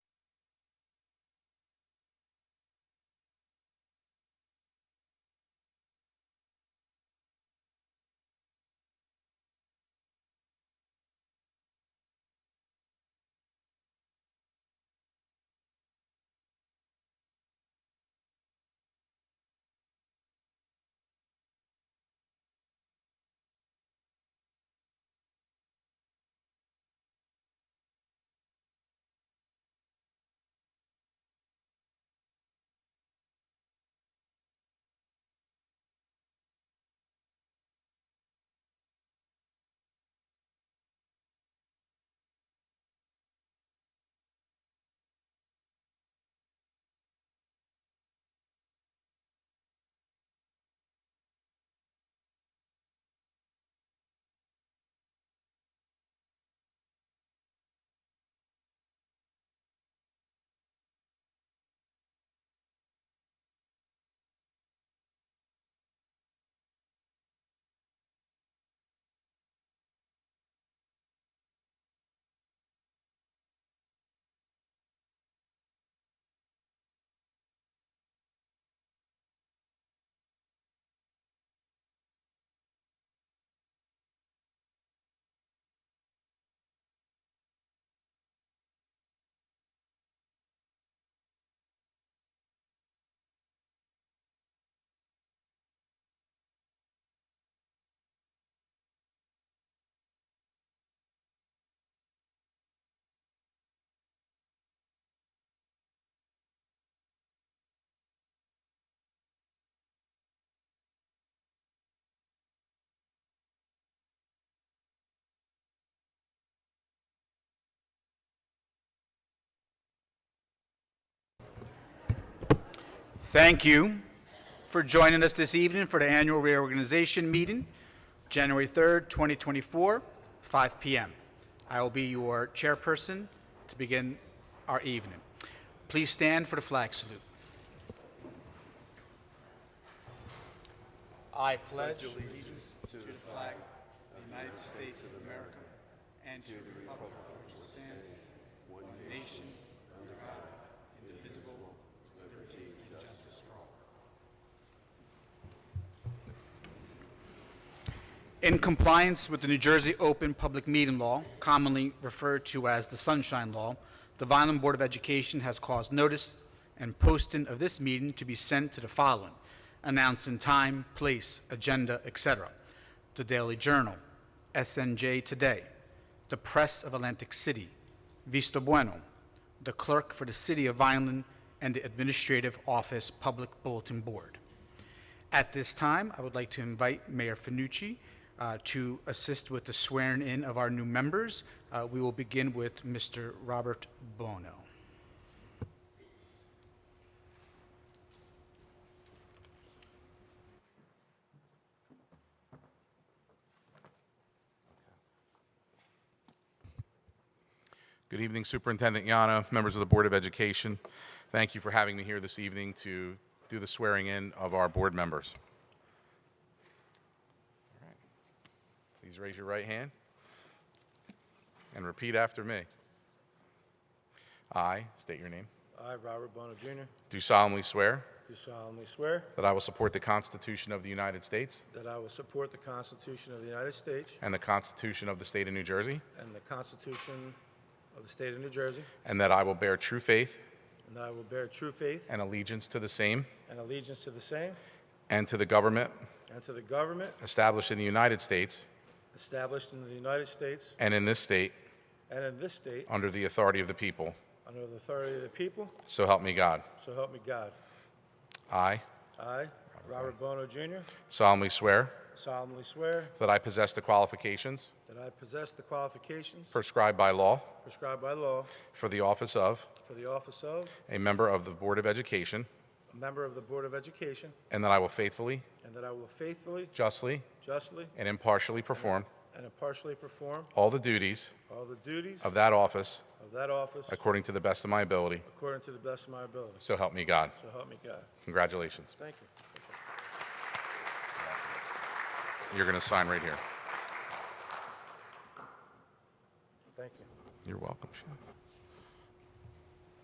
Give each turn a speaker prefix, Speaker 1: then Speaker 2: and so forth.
Speaker 1: Thank you for joining us this evening for the annual reorganization meeting, January 3rd, 2024, 5 p.m. I will be your chairperson to begin our evening. Please stand for the flag salute. I pledge allegiance to the flag of the United States of America and to the republic for which it stands, one nation, under God, indivisible, with liberty and justice for all. In compliance with the New Jersey Open Public Meeting Law, commonly referred to as the Sunshine Law, the Vineland Board of Education has caused notice and posting of this meeting to be sent to the following, announcing time, place, agenda, etc. The Daily Journal, SNJ Today, the Press of Atlantic City, Vista Bueno, the Clerk for the City of Vineland, and the Administrative Office Public Bulletin Board. At this time, I would like to invite Mayor Finucci uh, to assist with the swearing-in of our new members. Uh, We will begin with Mr. Robert Bono.
Speaker 2: Good evening, Superintendent Yana, members of the Board of Education. Thank you for having me here this evening to do the swearing-in of our board members. All right. Please raise your right hand and repeat after me. I state your name.
Speaker 3: I, Robert Bono Jr.,
Speaker 2: Do solemnly swear
Speaker 3: do solemnly swear
Speaker 2: that I will support the Constitution of the United States
Speaker 3: that I will support the Constitution of the United States
Speaker 2: and the Constitution of the State of New Jersey,
Speaker 3: and the Constitution of the State of New Jersey,
Speaker 2: and that I will bear true faith
Speaker 3: and that I will bear true faith
Speaker 2: and allegiance to the same
Speaker 3: and allegiance to the same
Speaker 2: and to the government
Speaker 3: and to the government
Speaker 2: established in the United States
Speaker 3: established in the United States
Speaker 2: and in this state
Speaker 3: and in this state
Speaker 2: Under the authority of the people,
Speaker 3: under the authority of the people,
Speaker 2: so help me God.
Speaker 3: so help me God.
Speaker 2: I
Speaker 3: I, Robert Bono Jr.,
Speaker 2: solemnly swear
Speaker 3: solemnly swear
Speaker 2: that I possess the qualifications
Speaker 3: that I possess the qualifications
Speaker 2: prescribed by law
Speaker 3: prescribed by law
Speaker 2: for the office of
Speaker 3: for the office of
Speaker 2: a member of the Board of Education,
Speaker 3: a member of the Board of Education,
Speaker 2: and that I will faithfully,
Speaker 3: and that I will faithfully,
Speaker 2: justly,
Speaker 3: justly,
Speaker 2: and impartially perform
Speaker 3: and impartially perform
Speaker 2: all the duties
Speaker 3: All the duties
Speaker 2: of that office
Speaker 3: of that office
Speaker 2: according to the best of my ability,
Speaker 3: according to the best of my ability.
Speaker 2: so help me God.
Speaker 3: So help me God.
Speaker 2: Congratulations.
Speaker 3: Thank you.
Speaker 2: You're going to sign right here.
Speaker 3: Thank you.
Speaker 2: You're welcome. Shannon.